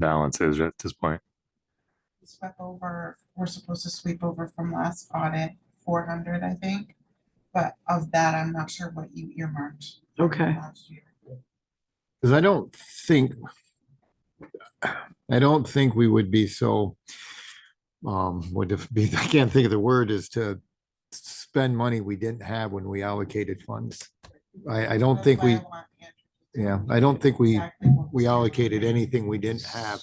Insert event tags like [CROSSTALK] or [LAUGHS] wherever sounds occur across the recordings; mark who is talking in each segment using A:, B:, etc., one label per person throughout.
A: balance is at this point.
B: swept over, we're supposed to sweep over from last audit, four hundred, I think. But of that, I'm not sure what you earmarked. from
C: Okay.
B: last year.
D: Because I don't think, I don't think we would be so, um, would it [LAUGHS] be, I can't think of the word, is to spend money we didn't have when we allocated funds. I, I don't
B: That's
D: think
B: why I
D: we,
B: want Andrew to
D: yeah, I don't think we,
B: exactly what
D: we
B: we're doing.
D: allocated anything we didn't have.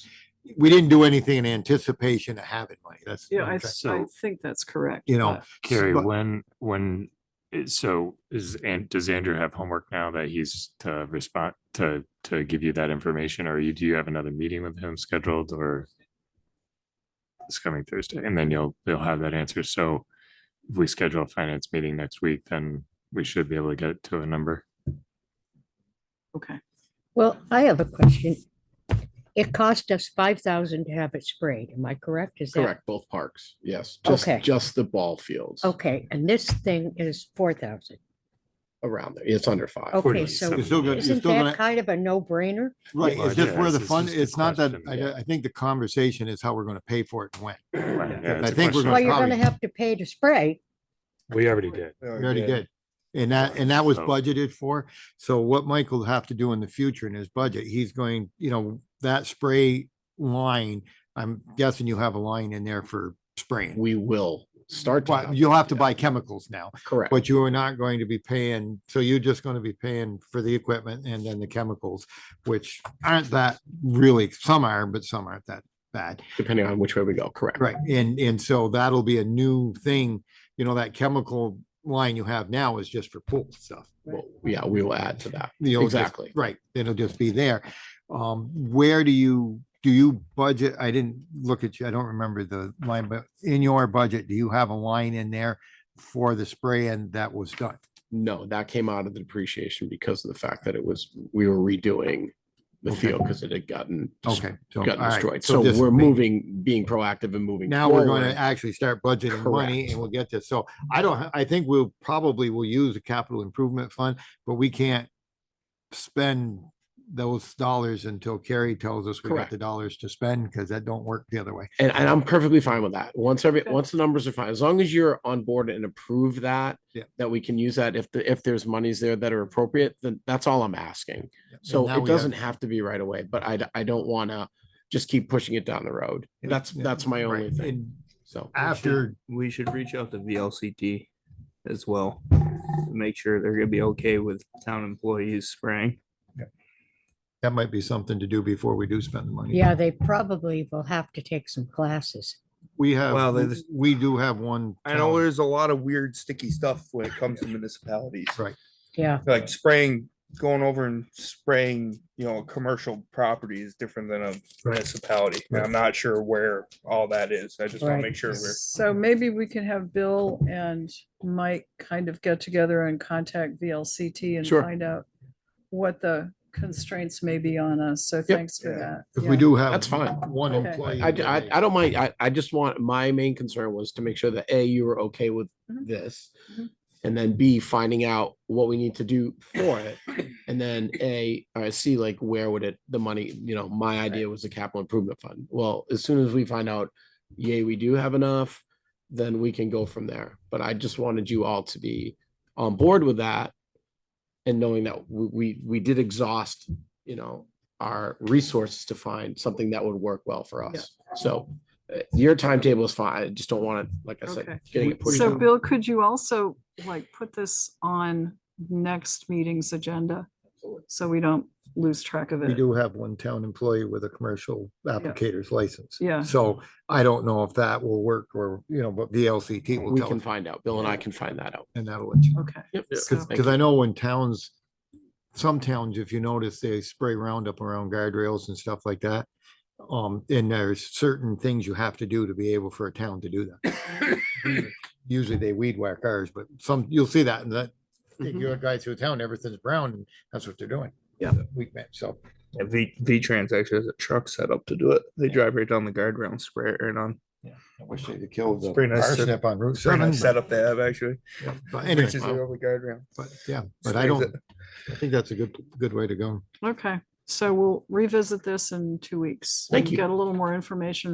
D: We didn't do anything in anticipation of having money. That's.
C: Yeah, I, th- I
A: So-
C: think that's correct.
D: You know,
C: but-
A: Carrie,
D: But-
A: when, when, i- so is, and does Andrew have homework now that he's to respond, to, to give you that information? Or you, do you have another meeting with him scheduled or? This coming Thursday, and then you'll, you'll have that answer. So if we schedule a finance meeting next week, then we should be able to get to a number.
C: Okay.
E: Well, I have a question. It cost us five thousand to have it sprayed, am I correct? Is that-
F: Correct, both parks, yes, just,
E: Okay.
F: just the ball fields
E: Okay, and this thing is four thousand.
F: around there, it's under five.
E: Okay,
A: Forty-seven.
E: so
D: You're still gonna, you're
E: isn't
D: still gonna.
E: that kind of a no-brainer?
D: Right,
A: Well,
D: it's just
A: yeah,
D: where the
A: it's- it's
D: fund,
A: just a
D: it's not that,
A: question,
D: I,
A: yeah.
D: I think the conversation is how we're gonna pay for it and when.
A: Right, yeah,
D: I
A: it's a
D: think
A: question.
D: we're gonna
E: Well, you're gonna
D: probably-
E: have to pay to spray.
A: We already did.
D: We already did. And that, and that was
A: So-
D: budgeted for. So what Michael will have to do in the future in his budget, he's going, you know, that spray line, I'm guessing you have a line in there for spraying.
F: We will start. to
D: But
F: have
D: you'll
F: that,
D: have to
F: yeah,
D: buy chemicals now,
F: Correct.
D: but you are not going to be paying, so you're just going to be paying for the equipment and then the chemicals, which aren't that really, some are, but some aren't that bad.
F: Depending on which way we go, correct.
D: Right, and, and so that'll be a new thing, you know, that chemical line you have now is just for pool stuff.
F: Well, Yeah, we will add to that.
D: You'll just-
F: Exactly.
D: Right, it'll just be there. Um, where do you, do you budget, I didn't look at you, I don't remember the line, but in your budget, do you have a line in there for the spray and that was done?
F: No, that came out of the depreciation because of the fact that it was, we were redoing the
D: Okay.
F: field because it had gotten, des-
D: Okay. so, all
F: gotten
D: right,
F: destroyed. So
D: just
F: we're
D: ma-
F: moving, being proactive and moving.
D: Now we're going to
F: forward.
D: actually start budgeting money
F: Correct.
D: and we'll get this. So I don't, ha- I think we'll probably will use a capital improvement fund, but we can't spend those dollars until Carrie tells us we got
F: Correct.
D: the dollars to spend because that don't work the other way.
F: And, and I'm perfectly fine with that. Once every,
C: Okay.
F: once the numbers are fine, as long as you're on board and approve that.
D: Yeah.
F: That we can use that if the, if there's monies there that are appropriate, then that's all I'm asking.
D: And
F: So
D: now
F: it
D: we have-
F: doesn't have to be right away, but I, d- I don't want to just keep pushing it down the road.
D: Yeah,
F: That's,
D: yeah,
F: that's my only
D: Right,
F: thing.
D: and
F: So.
G: We should-
D: After,
G: We should reach out to VLCT as well, to make sure they're gonna be okay with town employees spraying.
D: that might be something to do before we do spend the money.
E: Yeah, they probably will have to take some classes.
D: We
G: Well,
D: have,
G: there's-
D: we do have one.
H: I know
D: town-
H: there's a lot of weird sticky stuff when it comes to municipalities,
E: Yeah,
H: like spraying, going over and spraying, you know, a commercial property is different than a municipality. And I'm not sure where all that is. I just want
E: Right.
H: to make sure we're.
C: So maybe we can have Bill and Mike kind of get together and contact VLCT and
F: Sure.
C: find out what the constraints may be on us. So thanks for
H: Yeah.
C: that.
D: Because
C: Yeah.
D: we do have.
F: That's fine.
D: One
C: Okay.
D: employee.
F: I,
D: that
F: I,
D: they-
F: I don't mind. I, I just want, my main concern was to make sure that A, you were okay with
C: Mhm.
F: this.
C: Mhm.
F: And then B, finding out what we need to do for it. And then A, or C, like where would it, the money, you know, my idea was the capital improvement fund. Well, as soon as we find out, yay, we do have enough, then we can go from there. But I just wanted you all to be on board with that. And knowing that we, we, we did exhaust, you know, our resources to find something that would work well for
C: Yeah.
F: us. So uh, your timetable is fine. I just don't want it, like I
C: Okay.
F: said, getting it pushed.
C: So
F: out.
C: Bill, could you also like put this on next meeting's agenda? So we don't lose track of
D: We
C: it.
D: do have one town employee with a commercial applicator's license.
C: Yeah.
D: So I don't know if that will work or, you know, but VLCT will
F: We
D: tell
F: can
D: us
F: find out. Bill and I can find that out.
D: and that'll let you.
C: Okay.
F: Yep.
C: So-
H: Oh.
F: Thank
D: Because I know when towns, some towns, if you notice, they spray Roundup around guardrails and stuff like that. Um, and there's certain things you have to do to be able for a town to do that.
H: [COUGHS]
D: Usually they weed whack ours, but some, you'll see that in that,
C: Mm-hmm.
H: Mm-hmm.
F: Mhm.
D: you guys through town, everything's brown, and that's what they're doing.
C: Yeah.
D: Weak man, so.
G: And V, V-Trans actually has a truck set up to do it. They drive right down the guardrail and spray it right on.
D: I wish they'd killed
H: the pretty nice set-
D: Parsnip on Route
H: Pretty
D: seven.
H: nice
D: but-
H: setup they have actually.
D: But anyway,
H: Bridges are over guardrail.
D: but yeah, but I
H: Sprays
D: don't,
H: it.
D: I think that's a good, good way to go.
C: Okay. So we'll revisit this in two weeks.
F: Thank
C: and
F: you.
C: Get a little more information